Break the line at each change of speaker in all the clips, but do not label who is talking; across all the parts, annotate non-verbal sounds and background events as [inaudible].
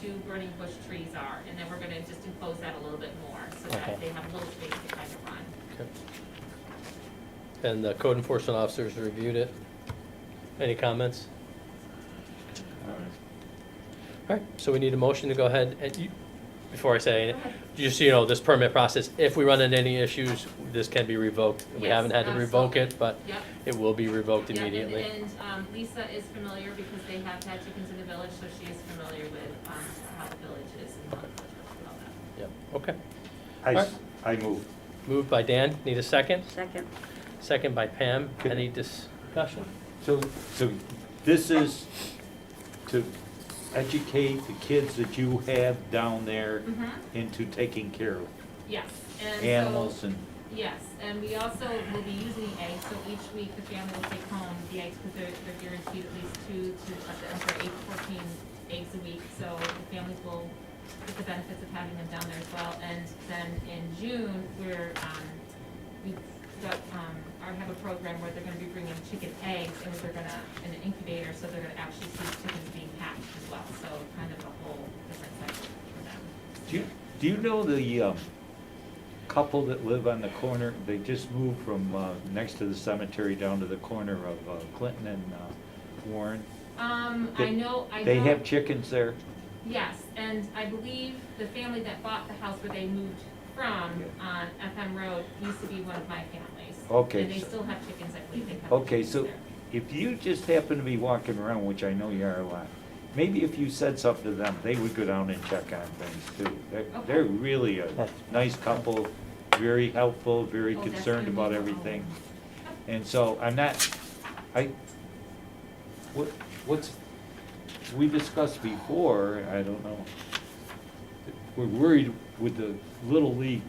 two burning bush trees are, and then we're gonna just enclose that a little bit more, so
Okay.
that they have a little space to kind of run.
Okay. And the code enforcement officers reviewed it. Any comments? All right, so we need a motion to go ahead and you, before I say, it, just so you know, this permit process, if we run into any issues, this can be revoked. We
Yes,
haven't had to revoke it, but
Yep.
it will be revoked
Yeah, and-
immediately.
And um, Lisa is familiar because they have had chickens in the village, so she is familiar with um, how the village is and how the village works and all that.
Yep, okay.
I, s- I move.
Moved by Dan, need a second?
Second.
Second by Pam,
Could-
any discussion?
So, so this is to educate the kids that you have down there
Mhm.
into taking care of
Yes, and so.
animals and,
Yes, and we also will be using the eggs, so each week the family will take home the eggs, because they're, they're guaranteed at least two to, I'm sorry, eight to fourteen eggs a week, so the families will get the benefits of having them down there as well, and then in June, we're, um, we, got, um, I have a program where they're gonna be bringing chicken eggs, and they're gonna, in an incubator, so they're gonna actually see chickens being hatched as well, so kind of a whole different cycle for them.
do you, do you know the, um, couple that live on the corner? They just moved from, uh, next to the cemetery down to the corner of uh, Clinton and, uh, Warren.
Um, I
They-
know, I know.
They have chickens there.
Yes, and I believe the family that bought the house where they moved from
Yeah.
on FM Road used to be one of my families.
Okay,
And they
so-
still have chickens, I believe they have.
Okay,
chickens
so
there.
if you just happen to be walking around, which I know you are a lot, maybe if you said something to them, they would go down and check on things too. They're,
Okay.
they're really a nice couple, very helpful, very
Oh, that's
concerned
gonna
about
be- oh.
everything. And so I'm not, I, what, what's, we discussed before, I don't know. We're worried with the Little League,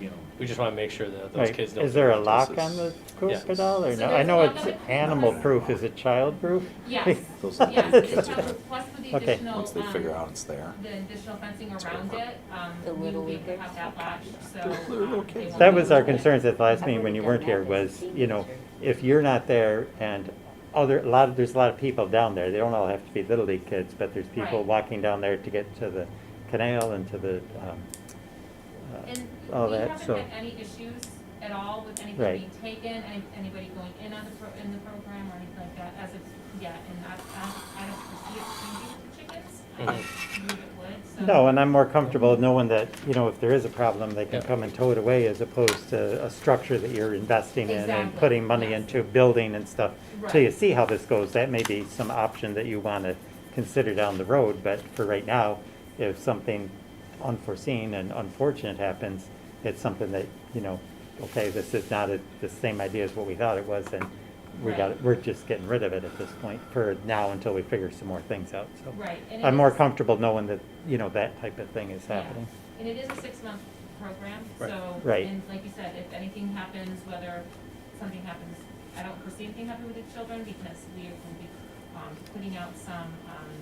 you know,
We just want to make sure that those
Right.
kids don't.
Is there a
think
lock
this
on
is-
the
Yeah.
crocodile or
So
no?
there's
I know
a
it's
lock.
animal proof, is it child proof?
[laughs]
Yes,
Those-
yes, it's covered, plus with the
Okay.
additional,
Once they figure
um,
out it's there.
the additional fencing
It's pretty
around
fun.
it, um,
The
we
Little
would be able to
Leaguers.
have that latched, so.
They're little
um, they
kids.
won't
That
be
was
able
our
to-
concerns at the last meeting when you weren't here was, you know, if you're not there and other, a lot, of- there's a lot of people down there. They don't all have to be Little League kids, but there's people
Right.
walking down there to get to the canal and to the, um,
And
uh, all
we
that,
haven't
so.
had any issues at all with anybody
Right.
being taken, any- anybody going in on the, pro- in the program or anything like that as of yet. And I, I- I don't foresee it changing for chickens. I don't believe it would, so.
Mm-hmm. No, and I'm more comfortable knowing that, you know, if there is a problem, they can
Yeah.
come and tow it away as opposed to a structure that you're investing in and
Exactly,
putting money
yes.
into building and stuff. Till you
Right.
see how this goes, that may be some option that you want to consider down the road, but for right now, if something unforeseen and unfortunate happens, it's something that, you know, okay, this is not a- the same idea as what we thought it was, and we
Right.
got, it- we're just getting rid of it at this point for now until we figure some more things out, so.
Right, and it
I'm more
is-
comfortable knowing that, you know, that type of thing is
Yeah.
happening.
And it is a six-month program,
Right.
so.
Right.
And like you said, if anything happens, whether something happens, I don't foresee anything happening with the children because we will be, um, putting out some, um,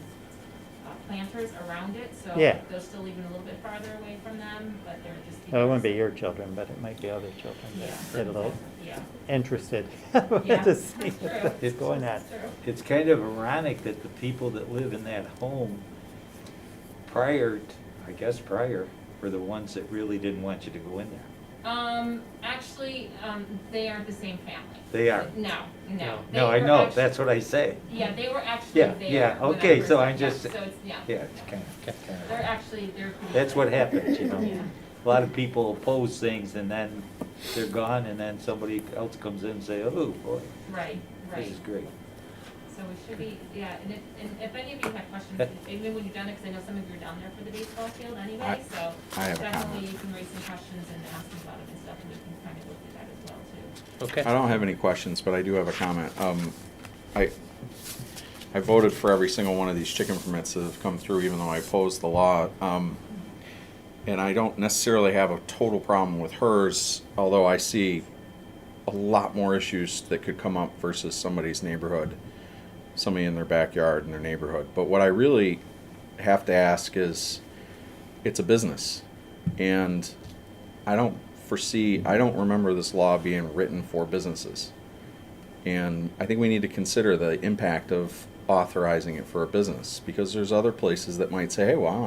uh, planters around it, so.
Yeah.
They're still even a little bit farther away from them, but they're just.
Now, Oh, It wouldn't be your children, but it might be other children
Yeah.
that get a little [laughs]
Yeah.
interested
Yeah,
to
that's
see
true.
what's going on.
That's true.
it's kind of ironic that the people that live in that home prior, t- I guess prior, were the ones that really didn't want you to go in there.
Um, actually, um, they aren't the same family.
They are.
No, no.
No.
They
No, I
were
know,
actu-
that's what I say.
Yeah, they were actually
Yeah,
there.
yeah,
when I
okay,
first
so
got
I'm
back,
just-
So it's, yeah.
Yeah, it's kind of,
They're
kind
actually, they're.
of,
pretty-
that's what happens, you know?
Yeah.
A lot of people oppose things and then they're gone and then somebody else comes in and say, oh, boy,
Right, right.
this is great.
So we should be, yeah, and if, and if any of you have questions, even when you're done, because I know some of you are down there for the baseball field anyway,
I-
so.
I have a
Definitely
comment.
you can raise some questions and ask them about it and stuff, and we can kind of look at that as well too.
Okay.
I don't have any questions, but I do have a comment. Um, I, I voted for every single one of these chicken permits that have come through, even though I opposed the law. Um, and I don't necessarily have a total problem with hers, although I see a lot more issues that could come up versus somebody's neighborhood, somebody in their backyard in their neighborhood. But what I really have to ask is, it's a business, and I don't foresee, I don't remember this law being written for businesses. And I think we need to consider the impact of authorizing it for a business because there's other places that might say, hey, well,